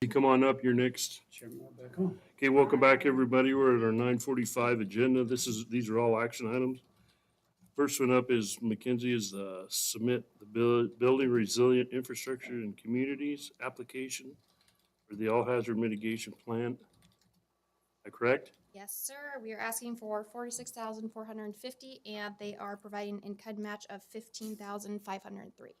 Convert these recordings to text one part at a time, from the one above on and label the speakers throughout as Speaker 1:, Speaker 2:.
Speaker 1: You come on up, you're next.
Speaker 2: Chairman, we're back on.
Speaker 1: Okay, welcome back, everybody. We're at our nine forty-five agenda. This is, these are all action items. First one up is McKenzie is uh, submit the buil- building resilient infrastructure and communities application for the all hazard mitigation plan. Is that correct?
Speaker 3: Yes, sir. We are asking for forty-six thousand four hundred and fifty, and they are providing an in-kind match of fifteen thousand five hundred and three.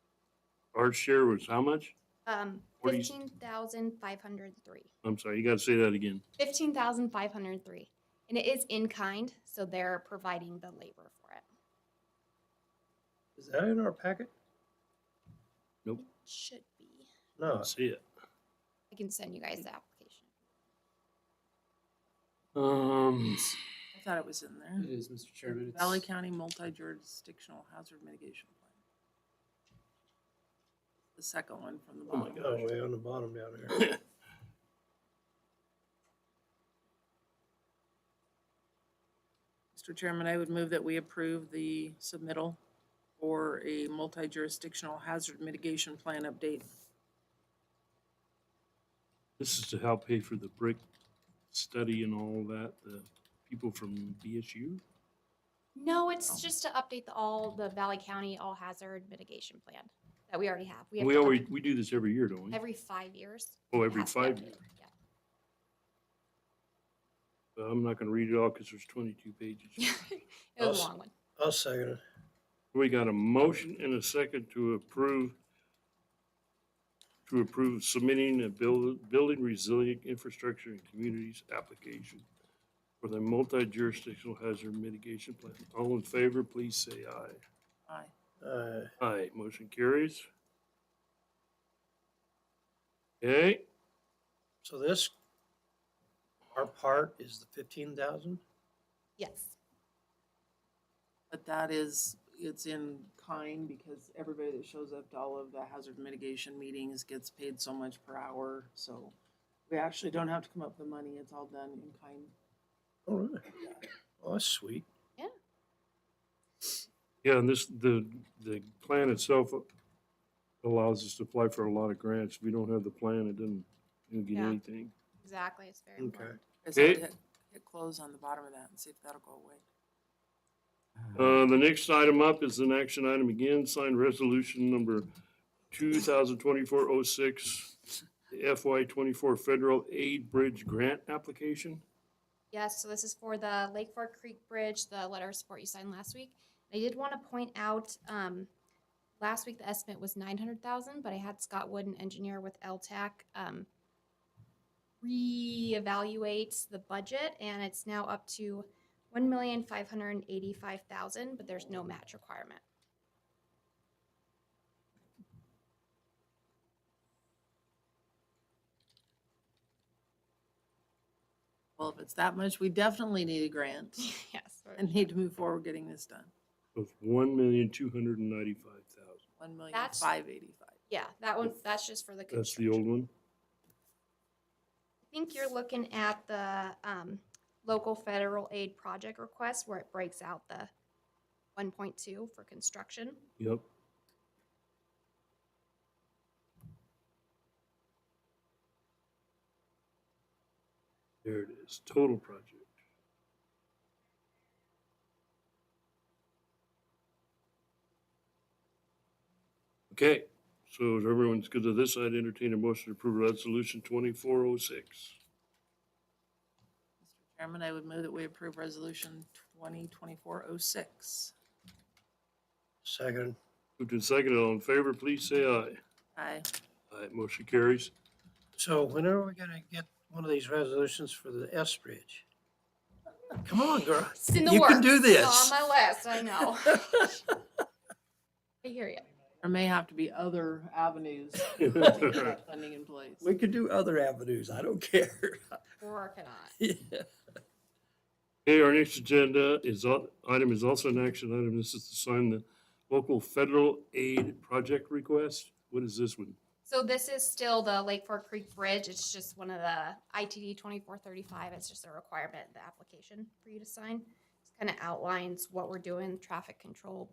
Speaker 1: Our share was how much?
Speaker 3: Um,
Speaker 1: Forty-
Speaker 3: fifteen thousand five hundred and three.
Speaker 1: I'm sorry, you gotta say that again.
Speaker 3: Fifteen thousand five hundred and three. And it is in-kind, so they're providing the labor for it.
Speaker 2: Is that in our packet?
Speaker 3: Should be.
Speaker 2: No.
Speaker 1: See it.
Speaker 3: I can send you guys the application.
Speaker 1: Um,
Speaker 4: I thought it was in
Speaker 2: It
Speaker 4: there.
Speaker 2: is, Mr. Chairman. It's-
Speaker 4: Valley County Multi-Jurisdictional Hazard Mitigation Plan. The second one from the
Speaker 1: Oh my
Speaker 4: bottom.
Speaker 2: Oh, way on the bottom down there.
Speaker 4: Mr. Chairman, I would move that we approve the submittal for a multi-jurisdictional hazard mitigation plan update.
Speaker 1: this is to help pay for the brick study and all that, the people from BSU.
Speaker 3: No,
Speaker 1: Oh.
Speaker 3: it's just to update the, all the Valley County All Hazard Mitigation Plan that we already have. have
Speaker 1: We
Speaker 3: to up-
Speaker 1: always, we do this every year, don't we?
Speaker 3: Every five years.
Speaker 1: Oh,
Speaker 3: it
Speaker 1: every
Speaker 3: has to be
Speaker 1: five
Speaker 3: updated.
Speaker 1: years.
Speaker 3: Yeah.
Speaker 1: Uh, I'm not gonna read it all because there's twenty-two pages.
Speaker 3: It was a
Speaker 2: Awesome.
Speaker 3: long one.
Speaker 2: I'll second it.
Speaker 1: We got a motion and a second to approve, to approve submitting a build, building resilient infrastructure and communities application for the multi-jurisdictional hazard mitigation plan. All in favor, please say aye.
Speaker 4: Aye.
Speaker 2: Uh,
Speaker 1: Aye, motion carries. Okay,
Speaker 2: so this, our part is the fifteen thousand?
Speaker 3: Yes.
Speaker 4: But that is, it's in kind because everybody that shows up to all of the hazard mitigation meetings gets paid so much per hour. So we actually don't have to come up with the money. It's all done in kind.
Speaker 2: Oh, really? Oh, that's sweet.
Speaker 1: yeah, and this, the, the plan itself allows us to apply for a lot of grants. If we don't have the plan, it doesn't, we don't get
Speaker 3: Yeah.
Speaker 1: anything.
Speaker 3: Exactly, it's very
Speaker 2: Okay.
Speaker 3: important.
Speaker 4: I said
Speaker 1: Okay.
Speaker 4: hit, hit close on the bottom of that and see if that'll go away.
Speaker 1: Uh, the next item up is an action item again, signed resolution number two thousand twenty-four oh six, FY twenty-four federal aid bridge grant application.
Speaker 3: Yes, so this is for the Lake Fork Creek Bridge, the letter of support you signed last week. I did want to point out, um, last week the estimate was nine hundred thousand, but I had Scott Wood, an engineer with LTAC, um, reevaluate the budget and it's now up to one million five hundred and eighty-five thousand, but there's no match requirement.
Speaker 4: Well, if it's that much, we definitely need a grant
Speaker 3: Yes. we're-
Speaker 4: and need to move forward getting this done.
Speaker 1: Of one million two hundred and ninety-five thousand.
Speaker 4: One million
Speaker 3: That's-
Speaker 4: five eighty-five.
Speaker 3: Yeah, that one, that's just for the
Speaker 1: That's
Speaker 3: construction.
Speaker 1: the old one.
Speaker 3: I think you're looking at the um, local federal aid project request where it breaks out the 1.2 for construction.
Speaker 1: Yep. There it is, total project. Okay, so if everyone's good to this, I'd entertain a motion to approve resolution twenty-four oh six.
Speaker 4: Mr. Chairman, I would move that we approve resolution twenty twenty-four oh six.
Speaker 2: Second.
Speaker 1: Moved and seconded, all in favor, please say aye.
Speaker 4: Aye.
Speaker 1: Aye, motion carries.
Speaker 2: So when are we gonna get one of these resolutions for the S Bridge? Come on, girl.
Speaker 3: It's in the
Speaker 2: You
Speaker 3: works.
Speaker 2: can do
Speaker 3: It's
Speaker 2: this.
Speaker 3: on my list, I know. I hear you.
Speaker 4: There may have to be other avenues to get that funding in place.
Speaker 2: We could do other avenues. I don't care.
Speaker 3: We're working on
Speaker 2: Yeah.
Speaker 1: Okay, our next agenda is, al- item is also an action item. This is to sign the local federal aid project request. What is this one?
Speaker 3: So this is still the Lake Fork Creek Bridge. It's just one of the ITD 2435. It's just a requirement, in the application for you to sign. It kind of outlines what we're doing, traffic control,